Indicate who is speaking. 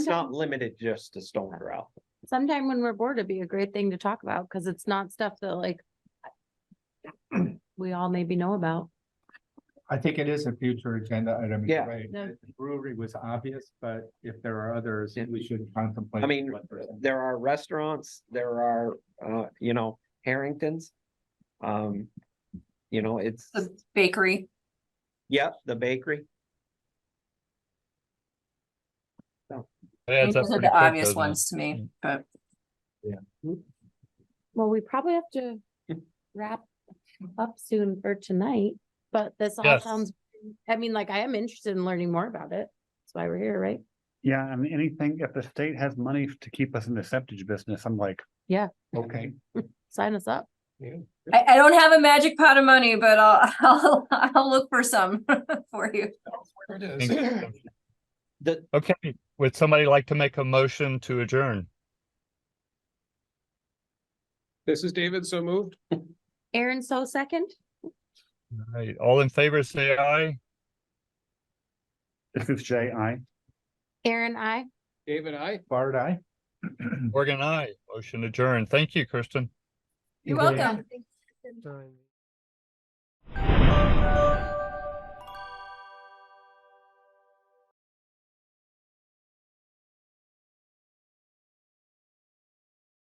Speaker 1: It's not limited just to stone grout.
Speaker 2: sometime when we're bored, it'd be a great thing to talk about, because it's not stuff that like we all maybe know about.
Speaker 3: I think it is a future agenda item.
Speaker 1: Yeah.
Speaker 3: Right.
Speaker 2: No.
Speaker 3: Brewery was obvious, but if there are others,
Speaker 1: Yeah.
Speaker 3: we should contemplate.
Speaker 1: I mean,
Speaker 3: what percent.
Speaker 1: there are restaurants, there are, uh, you know, Harringtons. Um, you know, it's,
Speaker 4: The bakery,
Speaker 1: yep, the bakery.
Speaker 4: I
Speaker 5: It
Speaker 4: mean,
Speaker 5: adds up
Speaker 4: those are
Speaker 5: pretty
Speaker 4: the
Speaker 5: quick, Mm.
Speaker 4: obvious
Speaker 5: doesn't it?
Speaker 4: ones to me, but
Speaker 2: Well, we probably have to wrap up soon for tonight, but this all
Speaker 5: Yes.
Speaker 2: sounds, I mean, like I am interested in learning more about it. That's why we're here, right?
Speaker 6: Yeah, I mean, anything, if the state has money to keep us in the septage business, I'm like,
Speaker 3: Okay,
Speaker 2: Sign us up.
Speaker 4: I, I don't have a magic pot of money, but I'll, I'll, I'll look for some for you.
Speaker 5: Thank you.
Speaker 1: The,
Speaker 5: Okay, would somebody like to make a motion to adjourn?
Speaker 7: This is David, so moved.
Speaker 2: Aaron, so second?
Speaker 5: All right, All in favor, say aye.
Speaker 6: this is J I.
Speaker 2: Aaron, I.
Speaker 7: David, I.
Speaker 3: Bard, I.
Speaker 5: Morgan, aye. Motion adjourned. Thank you, Kristen.
Speaker 4: You're welcome.
Speaker 7: Time.